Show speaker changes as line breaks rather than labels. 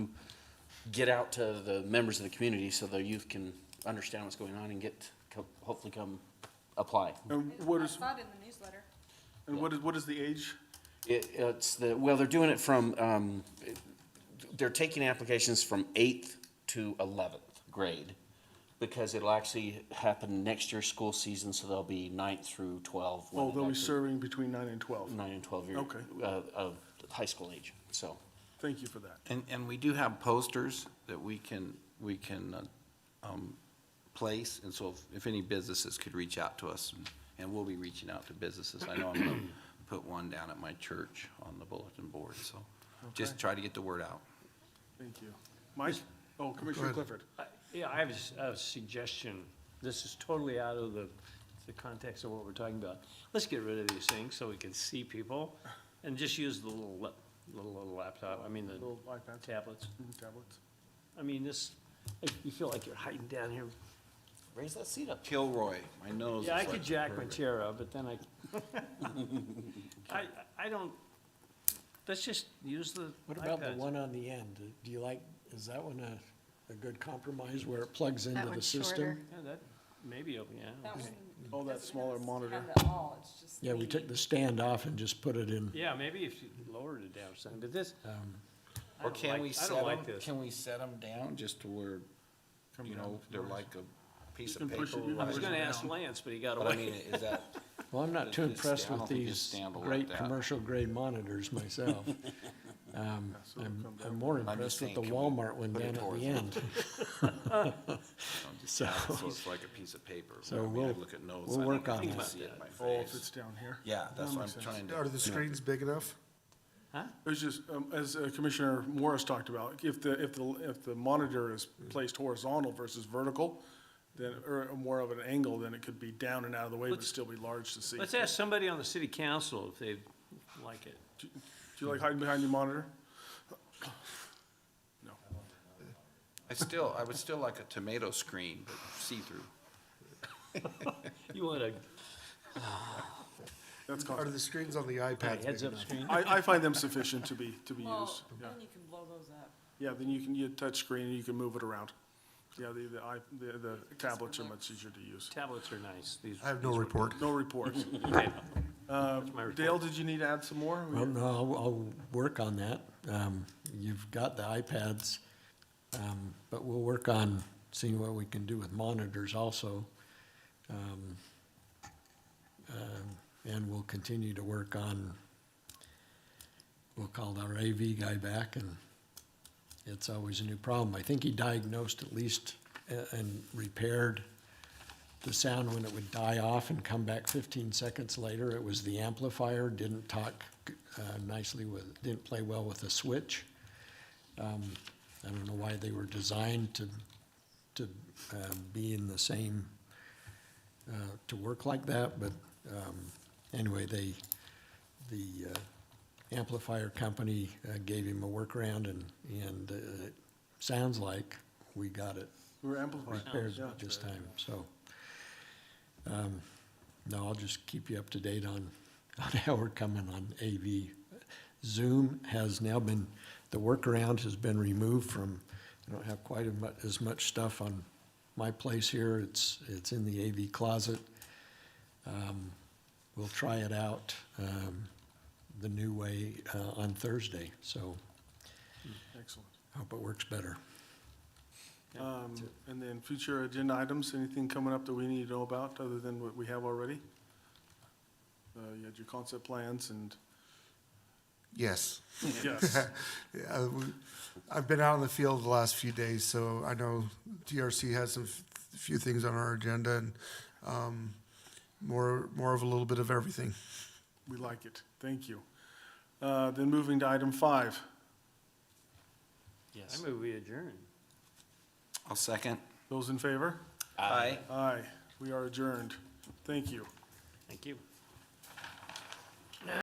get out to the members of the community so the youth can understand what's going on and get, co- hopefully come apply.
And
I
what is,
saw it in the newsletter.
and what is, what is the age?
It, it's the, well, they're doing it from, um, they're taking applications from eighth to eleventh grade because it'll actually happen next year's school season, so they'll be ninth through twelve. when
Oh,
it
they'll be
actually-
serving between nine and 12.
Nine and twelve year.
Okay.
Uh, of high school age, so.
Thank you for that.
And, and we do have posters that we can, we can uh, um, place, and so if- if any businesses could reach out to us, and- and we'll be reaching out to businesses. I know I'm going to put one down at my church on the bulletin board, so just
Okay.
try to get the word out.
Thank you. Mike? Oh, Commissioner Clifford.
I- Yeah, I have a s- a suggestion. This is totally out of the, the context of what we're talking about. Let's get rid of these things so we can see people and just use the little, lap- little, little laptop, I mean, the
Little iPads,
tablets.
mm, tablets.
I mean, this, like, you feel like you're hiding down here.
Raise that seat up.
Kilroy, my nose.
Yeah,
is
I could
like-
jack my chair up, but then I, I, I don't, let's just use the
What about the
iPads.
one on the end? Uh, Do you like, is that one a, a good compromise where it plugs into the
one's
system?
shorter.
Yeah, that, maybe, yeah.
That one
Oh, that
doesn't
smaller
have-
monitor.
Have it all, it's just.
Yeah, we took the stand off and just put it in.
Yeah, maybe if you lowered it down some, but this,
Um,
Or
I don't
can
like-
we
I
set
don't like
them,
this.
can we set 'em down just to where, you know, they're like a piece
You can
of paper?
push it, you can
I was
push it
gonna ask
down.
Lance, but he got
But I
away.
mean, is that?
Well, I'm not too
Just-
impressed
I don't
with
think just
these
stand will work
great
that.
commercial grade monitors myself. Um,
it'll
I'm,
come down.
I'm more
I'm just
impressed with
saying,
the
can we
Walmart one
put it
down at
towards
the
it?
end.
you know, just
So-
have it So it's like a piece of paper.
So
I mean, I
we'll-
look at notes,
we'll
I don't
work on
even
that.
see it in my
Oh, if
face.
it's down here.
Yeah, that's
That
what
makes
I'm
sense.
trying to.
Are the screens big enough?
It's just, um, as uh, Commissioner Morris talked about, if the, if the, if the monitor is placed horizontal versus vertical, then, or more of an angle, then it could be down and out of the way, but
Let's-
still be large to see.
Let's
Do
ask somebody on the city council if they like it.
you like hiding behind your monitor?
I still, I would still like a tomato screen, but see-through.
You want a
That's
Are
constant.
the screens on the iPad big
heads-up
enough?
screen?
I, I find them sufficient to be, to be
Well,
used. Yeah.
then you can blow those up.
Yeah, then you can, you touch screen and you can move it around. Yeah, the, the, i- the, the tablets are much easier to use.
Tablets are nice, these.
I have no Uh, report.
No reports.
Okay, my report.
Dale, did you need to add some more?
Well, no, I'll, I'll work on that. Um, you've got the iPads, um, but we'll work on seeing what we can do with monitors also. Um, um, and we'll continue to work on, we'll call our AV guy back and it's always a new problem. I think he diagnosed at least a- and repaired the sound when it would die off and come back 15 seconds later. It was the amplifier, didn't talk uh, nicely with, didn't play well with the switch. Um, I don't know why they were designed to, to uh, be in the same, uh, to work like that, but um, anyway, they, the uh, amplifier company uh, gave him a workaround and, and uh, it sounds like we got it
We're amplified.
repaired
Yeah.
this time, so. um, No, I'll just keep you up to date on, on how we're coming on AV. Zoom has now been, the workaround has been removed from, I don't have quite as much, as much stuff on my place here. It's, it's in the AV closet. Um, We'll try it out, um, the new way, uh, on Thursday, so
Excellent.
hope it works better.
Um, and then future agenda items, anything coming up that we need to know about other than what we have already? Uh, you had your concept plans and,
Yes.
yes,
Yeah, we- I've been out in the field the last few days, so I know TRC has some f- few things on our agenda and um, more, more of a little bit of everything.
we like it. Thank you. Uh, then moving to item five.
I move we adjourn.
I'll second.
Those in favor?
Aye.
Aye. We are adjourned. Thank you.
Thank you.